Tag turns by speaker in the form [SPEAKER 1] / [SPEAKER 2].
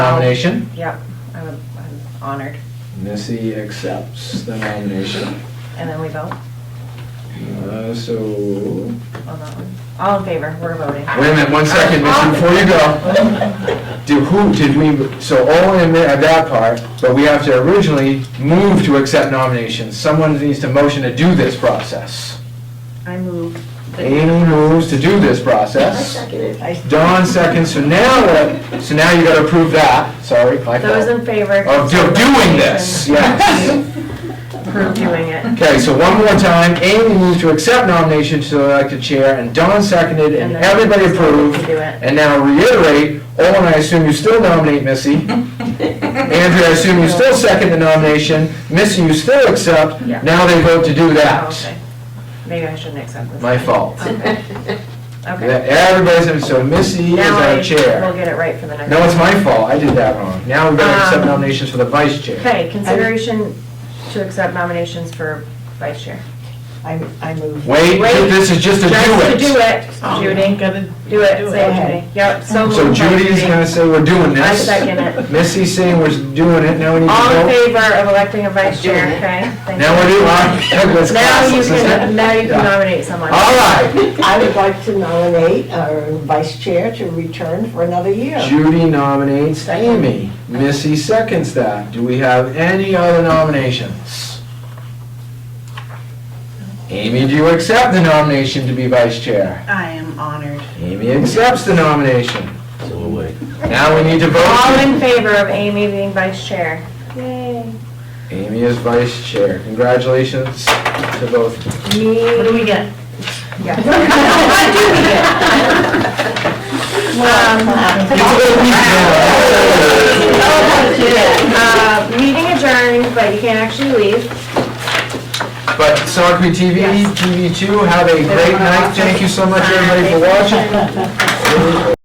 [SPEAKER 1] nomination.
[SPEAKER 2] Yep, I'm I'm honored.
[SPEAKER 1] Missy accepts the nomination.
[SPEAKER 2] And then we vote
[SPEAKER 1] Uh, So,
[SPEAKER 2] on that one. All in favor, we're voting.
[SPEAKER 1] Wait a minute, one second, Missy, before you go. Do who, did we, so all in there, that part, but we have to originally move to accept nominations. Someone needs to motion to do this process.
[SPEAKER 2] I move.
[SPEAKER 1] Amy moves to do this process.
[SPEAKER 2] I-
[SPEAKER 1] Dawn seconds, so now, what- so now you gotta approve that, sorry, my
[SPEAKER 2] Those
[SPEAKER 1] fault.
[SPEAKER 2] in favor.
[SPEAKER 1] Of do- doing this, yes.
[SPEAKER 2] Approve doing it.
[SPEAKER 1] Okay, so one more time, Amy moves to accept nomination to elect a chair, and Dawn seconded, and
[SPEAKER 2] then
[SPEAKER 1] everybody
[SPEAKER 2] we
[SPEAKER 1] approved.
[SPEAKER 2] can Do it.
[SPEAKER 1] And now reiterate, Owen, I assume you still nominate Missy. Andrea, I assume you still second the nomination. Missy, you still accept.
[SPEAKER 2] Yeah.
[SPEAKER 1] Now they vote to do
[SPEAKER 2] Oh,
[SPEAKER 1] that.
[SPEAKER 2] okay. Maybe I shouldn't accept this.
[SPEAKER 1] My fault.
[SPEAKER 2] Okay. Okay.
[SPEAKER 1] Everybody's, so Missy is
[SPEAKER 2] Now I
[SPEAKER 1] our
[SPEAKER 2] will
[SPEAKER 1] chair.
[SPEAKER 2] get it right for the next.
[SPEAKER 1] No, it's my fault, I did that wrong. Now we gotta accept
[SPEAKER 2] Um,
[SPEAKER 1] nominations for the vice chair.
[SPEAKER 2] Okay, consideration to accept nominations for vice chair.
[SPEAKER 3] I, I move.
[SPEAKER 1] Wait,
[SPEAKER 2] wait.
[SPEAKER 1] this is just a do
[SPEAKER 2] Just to do
[SPEAKER 1] it.
[SPEAKER 2] it, Judy.
[SPEAKER 3] Gotta
[SPEAKER 2] Do it, say it,
[SPEAKER 3] Okay.
[SPEAKER 2] Judy. Yep, so
[SPEAKER 1] So
[SPEAKER 2] moved by
[SPEAKER 1] Judy's gonna say we're doing
[SPEAKER 2] I
[SPEAKER 1] this.
[SPEAKER 2] second it.
[SPEAKER 1] Missy's saying we're doing it, now we need to
[SPEAKER 2] All in
[SPEAKER 1] vote.
[SPEAKER 2] favor of electing a vice chair,
[SPEAKER 3] Doing it.
[SPEAKER 2] okay? Thank
[SPEAKER 1] Now
[SPEAKER 2] you.
[SPEAKER 1] we're doing, uh, that's
[SPEAKER 2] Now you
[SPEAKER 1] classless, isn't
[SPEAKER 2] can,
[SPEAKER 1] it?
[SPEAKER 2] now you
[SPEAKER 1] Yeah.
[SPEAKER 2] can nominate someone.
[SPEAKER 1] All right,
[SPEAKER 3] I would like to nominate our vice chair to return for another year.
[SPEAKER 1] Judy nominates Amy. Missy seconds that. Do we have any other nominations? Amy, do you accept the nomination to be vice chair?
[SPEAKER 4] I am honored.
[SPEAKER 1] Amy accepts the nomination.
[SPEAKER 5] So away.
[SPEAKER 1] Now we need to
[SPEAKER 2] All
[SPEAKER 1] vote.
[SPEAKER 2] in favor of Amy being vice chair? Yay.
[SPEAKER 1] Amy is vice chair. Congratulations to both.
[SPEAKER 2] Me.
[SPEAKER 4] What do we get?
[SPEAKER 2] Yeah. What do we get? Um, uh, Meeting adjourned, but you can't actually leave.
[SPEAKER 1] But Saucony TV, TV2, have a great night. Thank you so much, everybody, for watching.